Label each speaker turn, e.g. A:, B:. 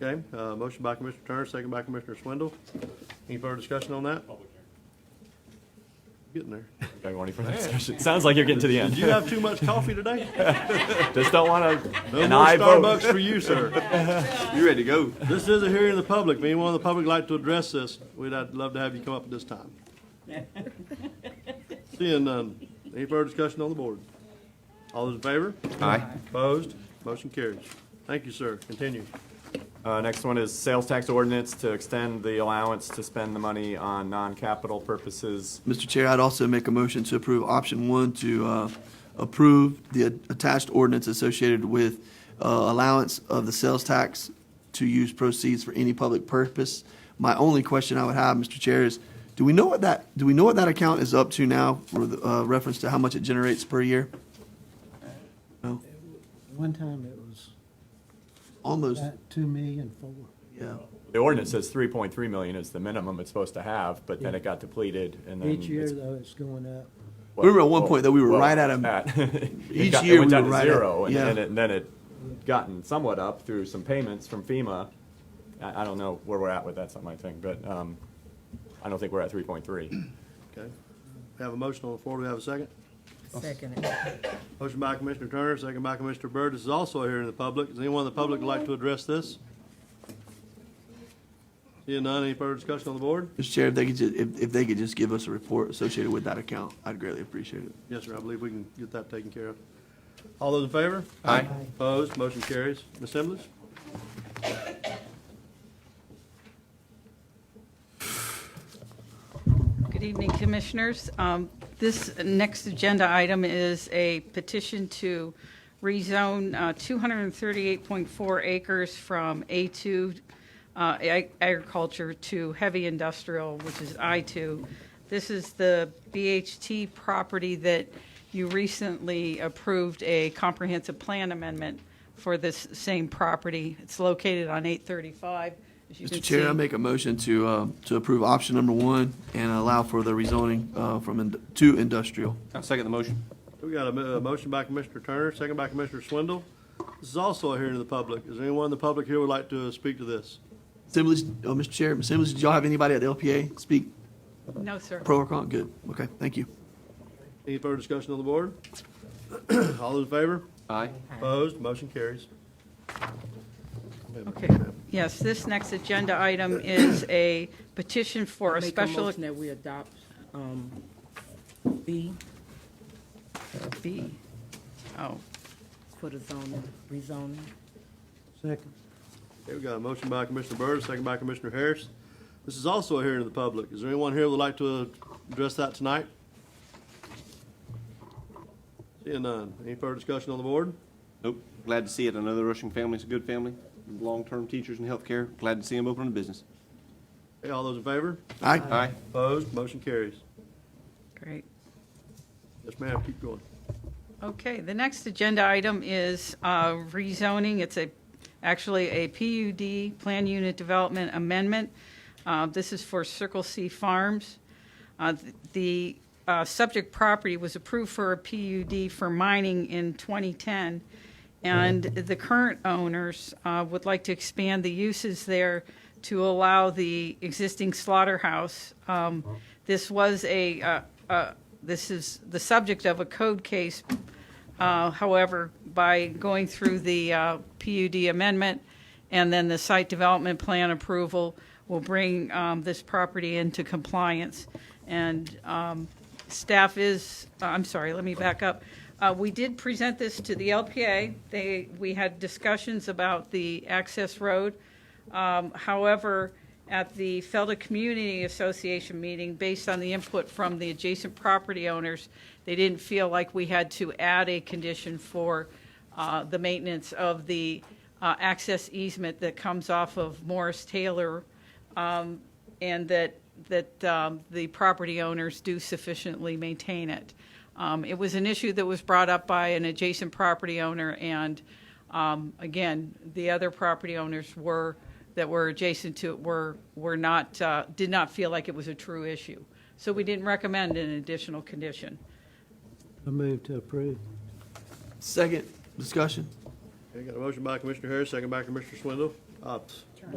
A: Okay, uh, motion by Commissioner Turner, second by Commissioner Swindle. Any further discussion on that? Getting there.
B: Okay, want any further discussion? Sounds like you're getting to the
A: Did
B: end.
A: you have too much coffee today?
B: Just don't want to,
A: No
B: and
A: more
B: I vote.
A: Starbucks for you, sir.
C: You ready to go?
A: This is a hearing of the public. If anyone in the public would like to address this, we'd I'd love to have you come up at this time. Seeing none. Any further discussion on the board? All those in favor?
C: Aye.
A: Opposed? Motion carries. Thank you, sir. Continue.
B: Uh, next one is sales tax ordinance to extend the allowance to spend the money on non-capital purposes.
D: Mr. Chair, I'd also make a motion to approve option one to uh, approve the attached ordinance associated with uh, allowance of the sales tax to use proceeds for any public purpose. My only question I would have, Mr. Chair, is do we know what that, do we know what that account is up to now for the, uh, reference to how much it generates per year? No,
E: One time it was
D: almost,
E: about two million four.
D: yeah.
B: The ordinance says three point three million is the minimum it's supposed to have, but then it got depleted and then.
E: Each year
B: it's-
E: though, it's going up.
D: We were at one point that we were
B: Well,
D: right at a-
B: at- it
D: Each
B: got- it
D: year
B: went
D: we
B: down
D: were
B: to
D: right at-
B: Zero, and then
D: yeah.
B: it, and then it gotten somewhat up through some payments from FEMA. I, I don't know where we're at with that, that's not my thing, but, um, I don't think we're at three point three.
A: Okay. We Have a motion on the floor. Do we have a second?
F: Second it.
A: Motion by Commissioner Turner, second by Commissioner Byrd. This is also a hearing of the public. Does anyone in the public like to address this? Seeing none, any further discussion on the board?
D: Mr. Chair, if they could, ju- if, if they could just give us a report associated with that account, I'd greatly appreciate it.
A: Yes, sir, I believe we can get that taken care of. All those in favor?
C: Aye.
A: Opposed, motion carries. Ms. Simmonds?
G: Good evening, Commissioners. Um, This next agenda item is a petition to rezone uh, 238.4 acres from A2 uh, ag- agriculture to heavy industrial, which is I2. This is the BHT property that you recently approved a comprehensive plan amendment for this same property. It's located on 835, as you can
D: Mr.
G: see.
D: Chair, I make a motion to, uh, to approve option number one and allow for the rezoning, uh, from, ind- to industrial.
C: I'll second the motion.
A: We got a mo- a motion by Commissioner Turner, second by Commissioner Swindle. This is also a hearing of the public. Is anyone in the public here would like to speak to this?
D: Assemblies, oh, Mr. Chair, Assemblies, did y'all have anybody at the LPA speak
G: No, sir.
D: pro or con? Good, okay, thank you.
A: Any further discussion on the board? All those in favor?
C: Aye.
A: Opposed, motion carries.
G: Okay, yes, this next agenda item is a petition for a
F: Make
G: special.
F: motion that we adopt um, B uh,
G: B. Oh,
F: for the zoning, rezoning.
E: Second,
A: Okay, we got a motion by Commissioner Byrd, second by Commissioner Harris. This is also a hearing of the public. Is there anyone here who would like to address that tonight? Seeing none. Any further discussion on the board?
C: Nope. Glad to see it. Another Rushing family. It's a good family. Long-term teachers in healthcare. Glad to see them open a business.
A: Okay, all those in favor?
D: Aye.
C: Aye.
A: Opposed, motion carries.
G: great.
A: Yes, ma'am, keep going.
G: Okay, the next agenda item is uh, rezoning. It's a, actually a PUD, Plan Unit Development Amendment. Uh, This is for Circle C Farms. Uh, th- The uh, subject property was approved for a PUD for mining in 2010, and the current owners uh, would like to expand the uses there to allow the existing slaughterhouse. Um, This was a, uh, uh, this is the subject of a code case uh, However, by going through the uh, PUD amendment and then the site development plan approval will bring um, this property into compliance. And um, staff is, uh, I'm sorry, let me back up. Uh, We did present this to the LPA. They, we had discussions about the access road. Um, However, at the Felda Community Association meeting, based on the input from the adjacent property owners, they didn't feel like we had to add a condition for uh, the maintenance of the uh, access easement that comes off of Morris Taylor, um, and that, that um, the property owners do sufficiently maintain it. Um, It was an issue that was brought up by an adjacent property owner, and um, again, the other property owners were, that were adjacent to it were, were not, uh, did not feel like it was a true issue. So we didn't recommend an additional condition.
E: I move to approve.
D: Second, discussion.
A: Okay, got a motion by Commissioner Harris, second by Commissioner Swindle. Ops.